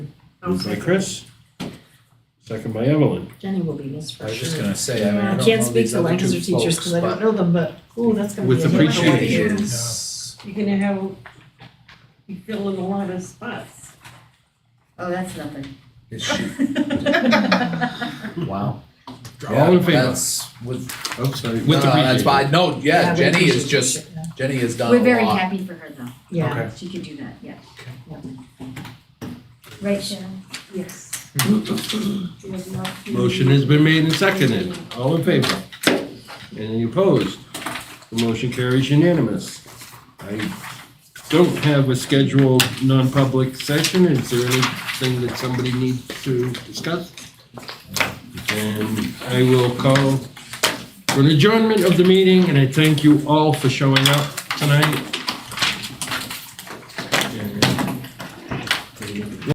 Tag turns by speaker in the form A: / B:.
A: Moved by Chris, second by Evelyn.
B: Jenny will be missed for
C: I was just
B: sure.
C: gonna say, I mean, I
B: Yeah, I
C: don't
B: can't
C: know
B: speak
C: these
B: to
C: other
B: Lancaster
C: two
B: teachers
C: folks,
B: because I
C: but
B: don't know them, but, ooh, that's gonna be.
C: With
B: a different one.
C: appreciation,
D: You're gonna have, you fill in a lot of spots.
E: Oh, that's nothing.
C: is she- wow.
A: All
C: Yeah,
A: in favor?
C: That's with,
A: Oh, sorry.
C: with
A: No, that's
C: that's
A: fine.
C: fine, no, yeah,
B: we
C: Jenny is
B: appreciate
C: just,
B: it, yeah.
C: Jenny has done a lot.
E: We're very happy for her though,
B: Yeah,
A: Okay.
E: she could do that, yeah. Right, Sharon?
D: Yes.
A: Motion has been made and seconded. All in favor? Any opposed? The motion carries unanimous. I don't have a scheduled non-public session. Is there anything that somebody needs to discuss? And I will call for an adjournment of the meeting, and I thank you all for showing up tonight.